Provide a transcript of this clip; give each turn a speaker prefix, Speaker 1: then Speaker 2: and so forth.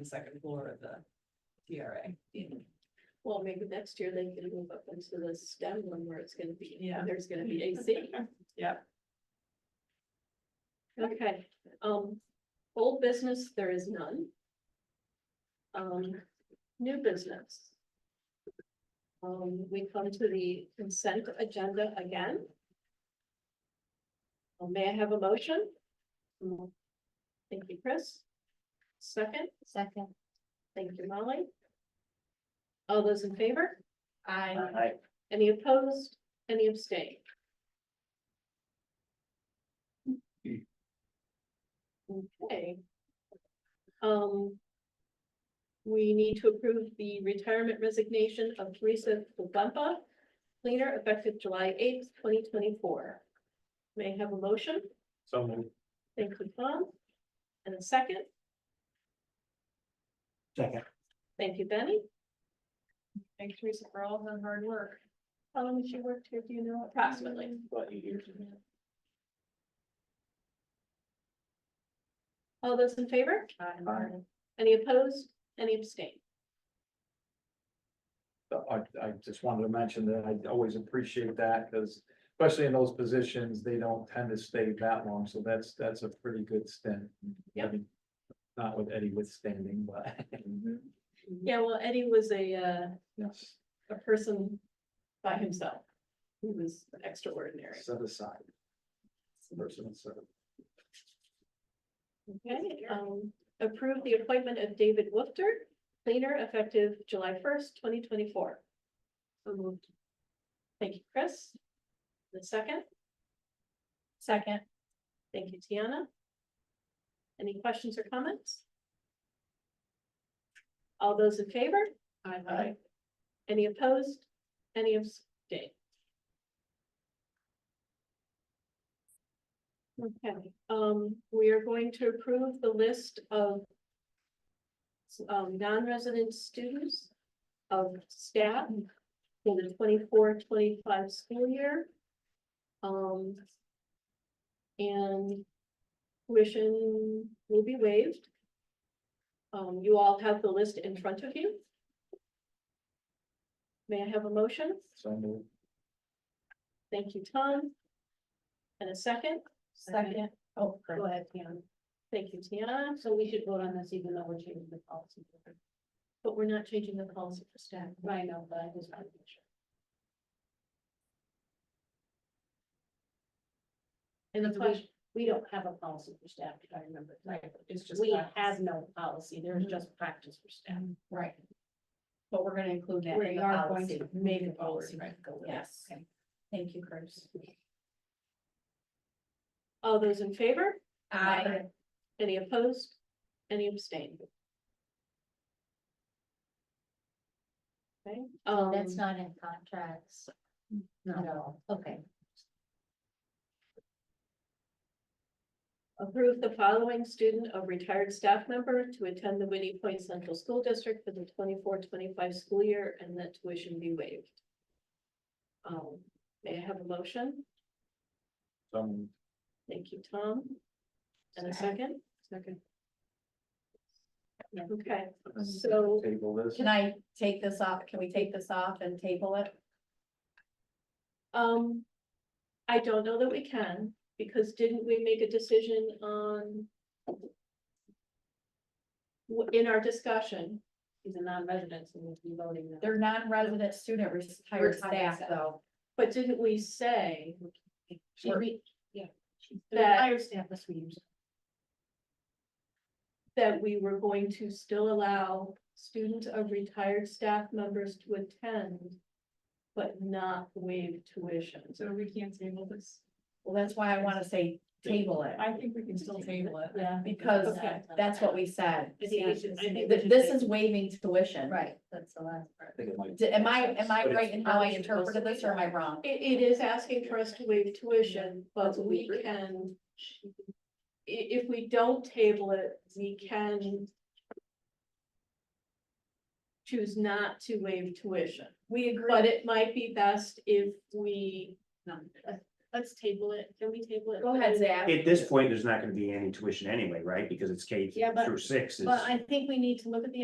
Speaker 1: the second floor of the TRA.
Speaker 2: Well, maybe next year they can move up into the STEM one where it's gonna be,
Speaker 1: Yeah.
Speaker 2: there's gonna be AC.
Speaker 1: Yep.
Speaker 2: Okay, um, old business, there is none. Um, new business. Um, we come to the consent agenda again. Uh, May I have a motion? Thank you, Chris. Second? Second. Thank you, Molly. All those in favor? Aye.
Speaker 1: Aye.
Speaker 2: Any opposed? Any abstain? Okay. Um. We need to approve the retirement resignation of Teresa Kubumpa, cleaner effective July eighth, twenty twenty-four. May I have a motion?
Speaker 3: So moved.
Speaker 2: Thank you, Tom. And a second?
Speaker 3: Second.
Speaker 2: Thank you, Benny.
Speaker 1: Thanks Teresa for all her hard work.
Speaker 2: How long has she worked here? Do you know approximately?
Speaker 3: About eight years.
Speaker 2: All those in favor?
Speaker 3: Aye.
Speaker 2: Any opposed? Any abstain?
Speaker 3: uh, I, I just wanted to mention that I always appreciate that because especially in those positions, they don't tend to stay that long. So that's, that's a pretty good stint.
Speaker 2: Yep.
Speaker 3: Not with Eddie withstanding, but
Speaker 4: Mm-hmm.
Speaker 1: Mm-hmm.
Speaker 2: Yeah, well, Eddie was a, uh,
Speaker 3: yes,
Speaker 2: a person by himself. He was extraordinary.
Speaker 3: set aside. Person set.
Speaker 2: Okay, um, approve the appointment of David Woofter, cleaner effective July first, twenty twenty-four. So moved. Thank you, Chris. The second? Second. Thank you, Tiana. Any questions or comments? All those in favor?
Speaker 1: Aye.
Speaker 2: Any opposed? Any abstain? Okay, um, we are going to approve the list of um, non-resident students of staff for the 24-25 school year. Um, and tuition will be waived. Um, you all have the list in front of you. May I have a motion?
Speaker 3: So moved.
Speaker 2: Thank you, Tom. And a second?
Speaker 4: Second. Oh, go ahead, Pam.
Speaker 2: Thank you, Tiana,
Speaker 4: So we should vote on this even though we're changing the policy.
Speaker 2: but we're not changing the policy for staff.
Speaker 4: I know, but I just want to make sure.
Speaker 2: And the
Speaker 4: So
Speaker 2: question,
Speaker 4: We don't have a policy for staff, if I remember. correctly.
Speaker 1: It's just.
Speaker 4: We
Speaker 1: that.
Speaker 4: have no policy. There's
Speaker 2: Mhm.
Speaker 4: just practice for staff.
Speaker 1: Right.
Speaker 4: But we're gonna include
Speaker 1: that in
Speaker 4: We
Speaker 1: the
Speaker 4: are going
Speaker 1: policy.
Speaker 4: to make a
Speaker 1: Moving forward,
Speaker 4: policy.
Speaker 1: right.
Speaker 4: Go with it.
Speaker 1: Yes.
Speaker 4: Okay. Thank you, Chris.
Speaker 2: all those in favor? Any opposed? Any abstained? Okay, um,
Speaker 5: That's not in contracts at all, okay.
Speaker 2: approve the following student of retired staff member to attend the Whitney Point Central School District for the 24-25 school year and that tuition be waived. Um, may I have a motion?
Speaker 3: So moved.
Speaker 2: Thank you, Tom. And a second?
Speaker 1: Second.
Speaker 2: Okay, so
Speaker 3: Table this.
Speaker 4: Can I take this off? Can we take this off and table it?
Speaker 2: Um, I don't know that we can, because didn't we make a decision on? w- In our discussion,
Speaker 4: He's a non-resident, so we'll be voting. They're non-resident student retired
Speaker 1: Retired
Speaker 4: staff
Speaker 1: staff.
Speaker 4: though.
Speaker 2: but didn't we say
Speaker 4: Or-
Speaker 5: The
Speaker 2: That-
Speaker 5: retired staff is we use.
Speaker 2: that we were going to still allow students of retired staff members to attend? But not waive tuition,
Speaker 1: So we can't table this.
Speaker 4: Well, that's why I wanna say table it,
Speaker 1: I think we can still table it.
Speaker 2: yeah.
Speaker 4: because
Speaker 2: Okay.
Speaker 4: that's what we said.
Speaker 2: I think we should- I think we
Speaker 4: Th-
Speaker 2: should
Speaker 4: This
Speaker 2: table
Speaker 4: is waiving tuition.
Speaker 5: Right, that's the last part.
Speaker 3: I think it might-
Speaker 4: D- Am I, am I
Speaker 3: But it's-
Speaker 4: right in how I interpreted this or am I wrong?
Speaker 2: It, it is asking for us to waive tuition, but we can. i- if we don't table it, we can. Choose not to waive tuition,
Speaker 4: We agree.
Speaker 2: but it might be best if we.
Speaker 1: let's table it. Can we table it?
Speaker 4: Go ahead, Zach.
Speaker 6: At this point, there's not gonna be any tuition anyway, right? Because it's K
Speaker 1: Yeah, but-
Speaker 6: through six. is-
Speaker 1: But I think we need to look at the